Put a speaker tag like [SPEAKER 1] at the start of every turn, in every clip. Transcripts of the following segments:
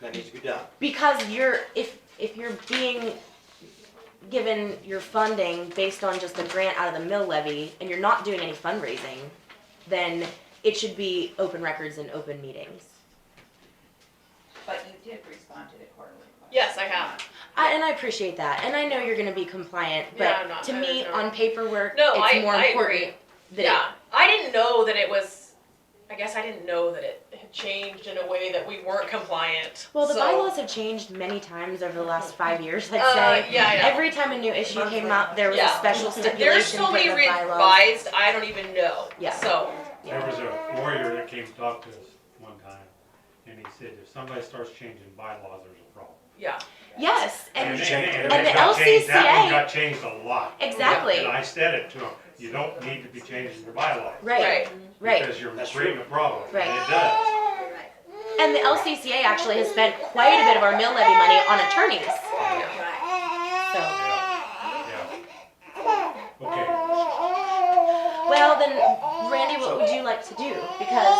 [SPEAKER 1] that needs to be done.
[SPEAKER 2] because you're if if you're being given your funding based on just a grant out of the mill levy and you're not doing any fundraising, then it should be open records and open meetings.
[SPEAKER 3] But you did respond to the quarterly question.
[SPEAKER 4] Yes, I have.
[SPEAKER 2] I, and I appreciate that, and I know you're going to be compliant, but
[SPEAKER 4] Yeah, I'm not-
[SPEAKER 2] to
[SPEAKER 4] I
[SPEAKER 2] me,
[SPEAKER 4] don't know.
[SPEAKER 2] on paperwork,
[SPEAKER 4] No,
[SPEAKER 2] it's
[SPEAKER 4] I-
[SPEAKER 2] more
[SPEAKER 4] I
[SPEAKER 2] important
[SPEAKER 4] agree.
[SPEAKER 2] that it-
[SPEAKER 4] yeah, I didn't know that it was. I guess I didn't know that it had changed in a way that we weren't compliant.
[SPEAKER 2] Well, the
[SPEAKER 4] so-
[SPEAKER 2] bylaws have changed many times over the last five years, I'd
[SPEAKER 4] Uh,
[SPEAKER 2] say.
[SPEAKER 4] yeah, I know.
[SPEAKER 2] Every time a new issue came up, there was
[SPEAKER 4] Yeah.
[SPEAKER 2] a special stipulation
[SPEAKER 4] There's so
[SPEAKER 2] put
[SPEAKER 4] many
[SPEAKER 2] in the bylaws.
[SPEAKER 4] revised. I don't even know.
[SPEAKER 2] Yeah.
[SPEAKER 4] So
[SPEAKER 5] There was a lawyer that came to talk to us one time, and he said, if somebody starts changing bylaws, there's a problem.
[SPEAKER 4] yeah,
[SPEAKER 2] Yes, and
[SPEAKER 5] it- it
[SPEAKER 2] and the
[SPEAKER 5] got changed- That
[SPEAKER 2] LCCA
[SPEAKER 5] one got changed a lot.
[SPEAKER 2] Exactly.
[SPEAKER 5] And I said it to him, you don't need to be changing your bylaws.
[SPEAKER 2] right, right,
[SPEAKER 5] Because you're
[SPEAKER 1] That's
[SPEAKER 5] creating a problem, and
[SPEAKER 2] Right.
[SPEAKER 5] it does.
[SPEAKER 2] and the LCCA actually has spent quite a bit of our mill levy money on attorneys.
[SPEAKER 3] Right.
[SPEAKER 2] So,
[SPEAKER 5] Yeah, yeah. Okay,
[SPEAKER 2] well, then, Randy, what would you like to do? Because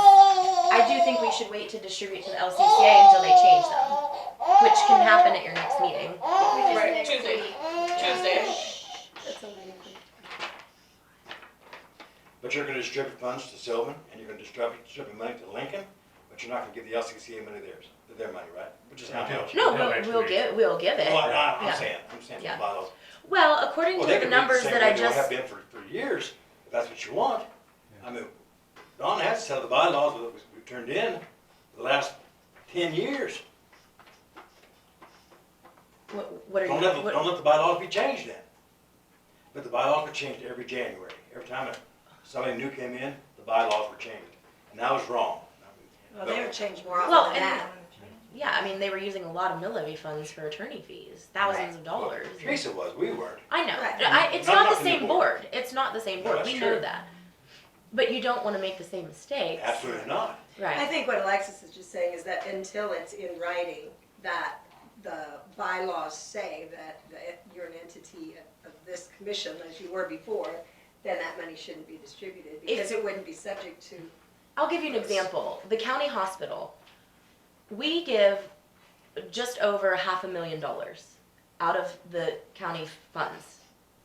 [SPEAKER 2] I do think we should wait to distribute to the LCCA until they change them, which can happen at your next meeting.
[SPEAKER 4] right. Tuesday, Tuesday.
[SPEAKER 1] But you're gonna distribute funds to Sylvan, and you're gonna distribute, distribute money to Lincoln, but you're not gonna give the LCCA money theirs, their money, right? Which is not
[SPEAKER 5] Yeah.
[SPEAKER 1] much.
[SPEAKER 2] No,
[SPEAKER 5] Yeah,
[SPEAKER 2] we'll, we'll
[SPEAKER 5] actually.
[SPEAKER 2] give we'll give
[SPEAKER 1] Well,
[SPEAKER 2] it.
[SPEAKER 1] I- I'm
[SPEAKER 2] Yeah.
[SPEAKER 1] saying, I'm saying
[SPEAKER 2] Yeah.
[SPEAKER 1] the bylaws.
[SPEAKER 2] Well, according
[SPEAKER 1] Well,
[SPEAKER 2] to
[SPEAKER 1] they
[SPEAKER 2] the
[SPEAKER 1] could be the
[SPEAKER 2] numbers
[SPEAKER 1] same
[SPEAKER 2] that
[SPEAKER 1] way
[SPEAKER 2] I
[SPEAKER 1] they have
[SPEAKER 2] just
[SPEAKER 1] been for, for years, if that's what you want. I mean, Don has to sell the bylaws that we, we turned in the last ten years.
[SPEAKER 2] What, what are
[SPEAKER 1] Don't
[SPEAKER 2] you?
[SPEAKER 1] let, the-
[SPEAKER 2] what-
[SPEAKER 1] don't let the bylaws be changed then. But the bylaws were changed every January. Every time that somebody new came in, the bylaws were changed. And that was wrong.
[SPEAKER 6] Well, they were changed more
[SPEAKER 2] Well,
[SPEAKER 6] often than
[SPEAKER 2] and-
[SPEAKER 6] that.
[SPEAKER 2] yeah, I mean, they were using a lot of mill levy funds for attorney fees, thousands of
[SPEAKER 1] Well,
[SPEAKER 2] dollars.
[SPEAKER 1] Teresa was, we weren't.
[SPEAKER 2] I know.
[SPEAKER 6] Right.
[SPEAKER 2] I, it's
[SPEAKER 1] Not-
[SPEAKER 2] not,
[SPEAKER 1] not
[SPEAKER 2] the
[SPEAKER 1] from the
[SPEAKER 2] same
[SPEAKER 1] board.
[SPEAKER 2] board. It's not the same
[SPEAKER 1] No,
[SPEAKER 2] board.
[SPEAKER 1] that's
[SPEAKER 2] we
[SPEAKER 1] true.
[SPEAKER 2] know that. But you don't want to make the same mistakes.
[SPEAKER 1] Absolutely not.
[SPEAKER 6] I
[SPEAKER 2] Right.
[SPEAKER 6] think what Alexis is just saying is that until it's in writing, that the bylaws say that, that you're an entity of of this commission as you were before, then that money shouldn't be distributed because it wouldn't be subject to,
[SPEAKER 2] I'll give you an example. The county hospital, we give just over half a million dollars out of the county funds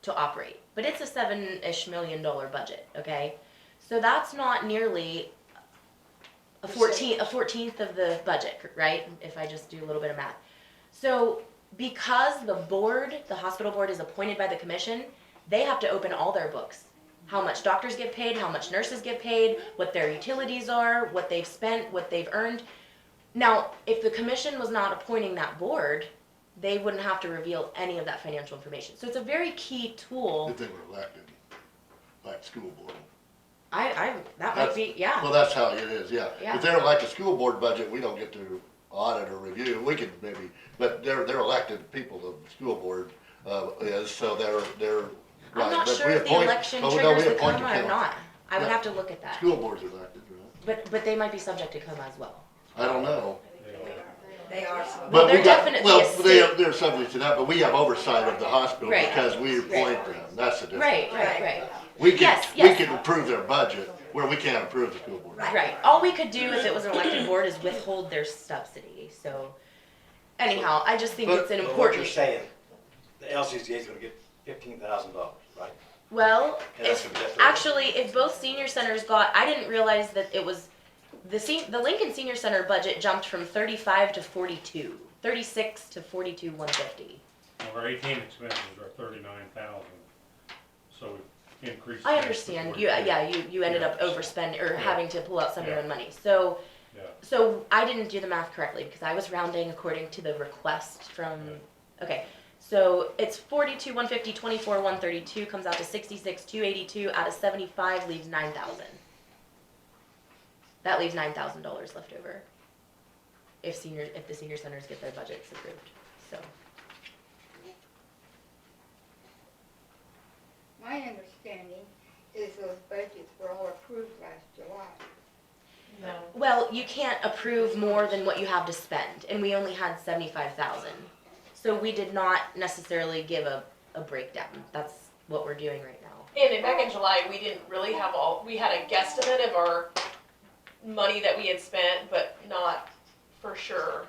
[SPEAKER 2] to operate. But it's a seven ish million dollar budget, okay? So that's not nearly a fourteenth a fourteenth of the budget, right? If I just do a little bit of math. So because the board, the hospital board is appointed by the commission, they have to open all their books. How much doctors get paid, how much nurses get paid, what their utilities are, what they've spent, what they've earned. Now, if the commission was not appointing that board, they wouldn't have to reveal any of that financial information. So it's a very key tool.
[SPEAKER 7] If they were elected, like school board.
[SPEAKER 2] I, I, that might
[SPEAKER 7] That's-
[SPEAKER 2] be, yeah,
[SPEAKER 7] Well, that's how it is, yeah.
[SPEAKER 2] Yeah.
[SPEAKER 7] If they're elected school board budget, we don't get to audit or review, we could maybe, but they're, they're elected people, the school board, uh, is, so they're, they're.
[SPEAKER 2] I'm
[SPEAKER 7] right,
[SPEAKER 2] not
[SPEAKER 7] but
[SPEAKER 2] sure
[SPEAKER 7] we
[SPEAKER 2] if the
[SPEAKER 7] appoint-
[SPEAKER 2] election
[SPEAKER 7] oh, no,
[SPEAKER 2] triggers
[SPEAKER 7] we
[SPEAKER 2] the
[SPEAKER 7] appoint
[SPEAKER 2] coma or
[SPEAKER 7] council.
[SPEAKER 2] not. I would
[SPEAKER 7] Yeah.
[SPEAKER 2] have to look at that.
[SPEAKER 7] School board's elected, right?
[SPEAKER 2] But, but they might be subject to coma as well.
[SPEAKER 7] I don't know.
[SPEAKER 6] they are. subject.
[SPEAKER 7] But
[SPEAKER 2] they're
[SPEAKER 7] we got,
[SPEAKER 2] definitely a
[SPEAKER 7] well,
[SPEAKER 2] state-
[SPEAKER 7] they're, they're subject to that, but we have oversight of the hospital
[SPEAKER 2] Right.
[SPEAKER 7] because we appoint them, that's the difference.
[SPEAKER 2] Right, right, right.
[SPEAKER 7] We can,
[SPEAKER 2] Yes,
[SPEAKER 7] we
[SPEAKER 2] yes.
[SPEAKER 7] can approve their budget, where we can't approve the school board.
[SPEAKER 2] Right. All we could do if it was an elected board is withhold their subsidy. So, anyhow, I just think
[SPEAKER 7] But-
[SPEAKER 2] it's an
[SPEAKER 1] But what
[SPEAKER 2] important.
[SPEAKER 1] you're saying, the LCCA is gonna get fifteen thousand dollars, right?
[SPEAKER 2] Well,
[SPEAKER 1] And that's
[SPEAKER 2] if-
[SPEAKER 1] gonna be up to us.
[SPEAKER 2] actually, if both senior centers got, I didn't realize that it was the sen- the Lincoln Senior Center budget jumped from 35 to 42, 36 to 42 150.
[SPEAKER 5] now our eighteen expenses are thirty-nine thousand, so we increased.
[SPEAKER 2] I
[SPEAKER 5] that to
[SPEAKER 2] understand. You uh,
[SPEAKER 5] 42.
[SPEAKER 2] yeah, you you ended
[SPEAKER 5] Yeah.
[SPEAKER 2] up overspending or
[SPEAKER 5] Yeah.
[SPEAKER 2] having to pull out some of your
[SPEAKER 5] Yeah.
[SPEAKER 2] own money. So
[SPEAKER 5] Yeah,
[SPEAKER 2] So I didn't do the math correctly because I was rounding according to the request from, okay. So it's forty-two, one fifty, twenty-four, one thirty-two, comes out to sixty-six, two eighty-two, out of seventy-five leaves nine thousand. That leaves nine thousand dollars left over. If senior, if the senior centers get their budgets approved, so.
[SPEAKER 8] My understanding is those budgets were all approved last July.
[SPEAKER 4] No.
[SPEAKER 2] Well, you can't approve more than what you have to spend, and we only had seventy-five thousand. So we did not necessarily give a, a breakdown, that's what we're doing right now.
[SPEAKER 4] And then back in July, we didn't really have all. We had a guesstimate of our money that we had spent, but not for sure.